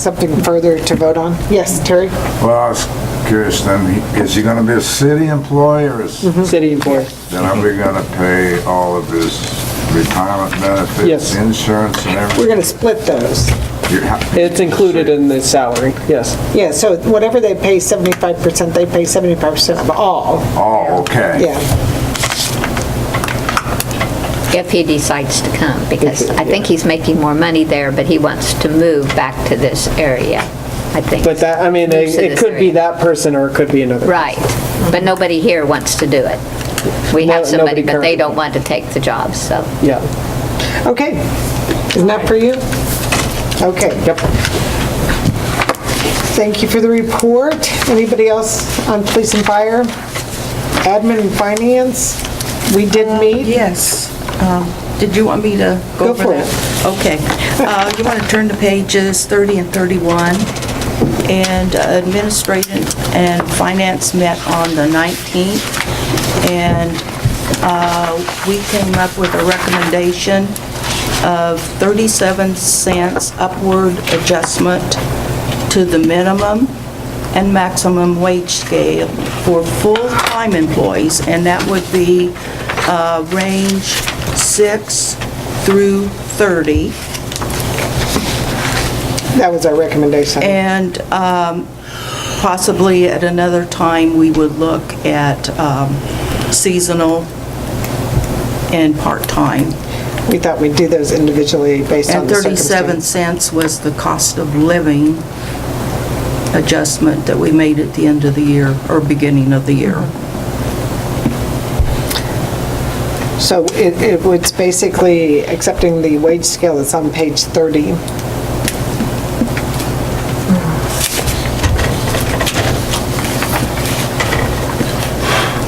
Something further to vote on? Yes, Terry? Well, I was curious then, is he gonna be a city employee or is, then City employee. are we gonna pay all of his retirement benefits, Yes. insurance and We're everything? going to split those. You have- It's included in the salary, yes. Yeah, so whatever they pay 75%, they pay 75% of all, Oh, okay. yeah. if he decides to come, because I think he's making more money there, but he wants to move back to this area, I think. But that, I mean, Moves it to it this could be area. that person or it could be another. Right, but nobody here wants to do it. We No- have somebody, nobody but they currently. don't want to take the job, so. Yeah, Okay, isn't that for you? Okay. yep. Thank you for the report. Anybody else on police and fire? Admin and finance? We did meet. Yes. Um, Did you want me to Go go over for that? Okay. Uh, You want to turn to pages 30 and 31. And uh, administration and finance met on the 19th. And uh, we came up with a recommendation of 37 cents upward adjustment to the minimum and maximum wage scale for full-time employees, and that would be uh, range 6 through 30. That was our recommendation. And um, possibly at another time, we would look at um, seasonal and part-time. We thought we'd do those individually based on And the 37 circumstances. cents was the cost of living adjustment that we made at the end of the year, or beginning of the year. So it, it was basically accepting the wage scale that's on page 30.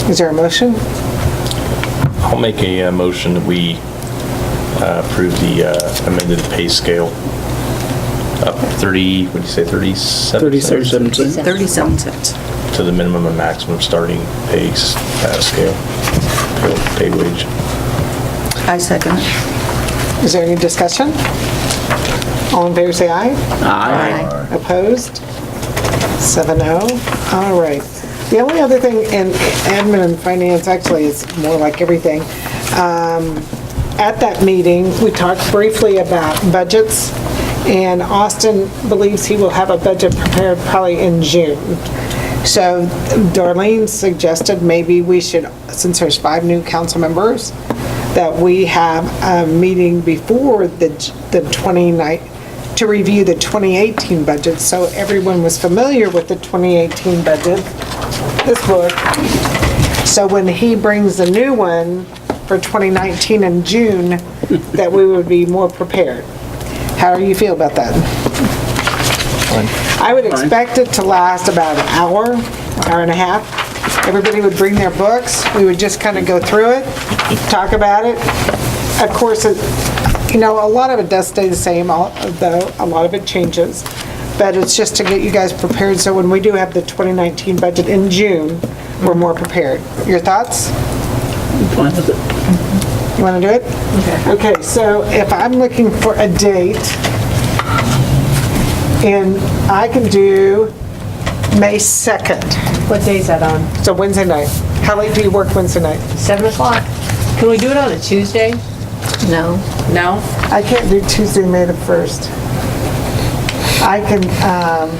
Is there a motion? I'll make a uh, motion that we uh, approve the uh, amended pay scale up 30, what'd you say, 37? 37 cents. 37 cents. To the minimum and maximum starting pay s- uh, scale, pay- pay wage. I second it. Is there any discussion? All in favor, say aye. Aye. Opposed? 7-0. All right. The only other thing in admin and finance, actually, is more like everything. Um, At that meeting, we talked briefly about budgets, and Austin believes he will have a budget prepared probably in June. So Darlene suggested maybe we should, since there's five new council members, that we have a meeting before the the 29th, to review the 2018 budget, so everyone was familiar with the 2018 budget, this book. So when he brings the new one for 2019 in June, that we would be more prepared. How do you feel about that? I would expect it to last about an hour, hour and a half. Everybody would bring their books, we would just kind of go through it, talk about it. Of course, it- you know, a lot of it does stay the same, although a lot of it changes. But it's just to get you guys prepared, so when we do have the 2019 budget in June, we're more prepared. Your thoughts? You want to do it? Okay. Okay, so if I'm looking for a date, and I can do May 2nd. What day is that on? It's a Wednesday night. How late do you work Wednesday night? 7 o'clock. Can we do it on a Tuesday? No? No? I can't do Tuesday, May the 1st. I can, um,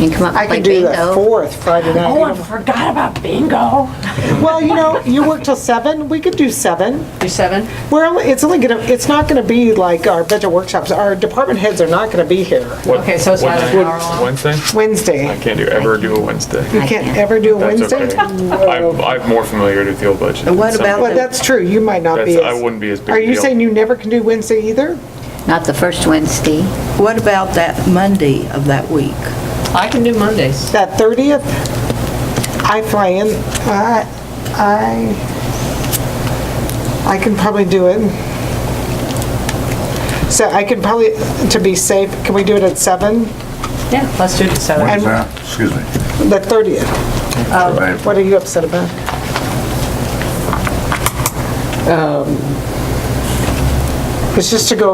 You can come up I and play can do the bingo. 4th, Friday night. Oh, I forgot about bingo. Oh, Well, you know, you work till 7, we could do 7. Do 7? We're only, it's only gonna, it's not gonna be like our budget workshops, our department heads are not gonna be here Okay, so it's not an hour long? Wednesday? Wednesday. I can't do, ever do a Wednesday. You can't ever do a That's Wednesday? okay. I'm, I'm more familiar with the old budget. And what than about some- Well, that's true, you might not be That's, I as, wouldn't be as big. are a you deal. saying you never can do Wednesday either? Not the first Wednesday. What about that Monday of that week? I can do Mondays. That 30th, I fly in, I, I, I can probably do it. So I can probably, to be safe, can we do it at 7? Yeah, let's do it at 7. When's that? Excuse me. The 30th? Um, Right. What are you upset about? Um, It's just to go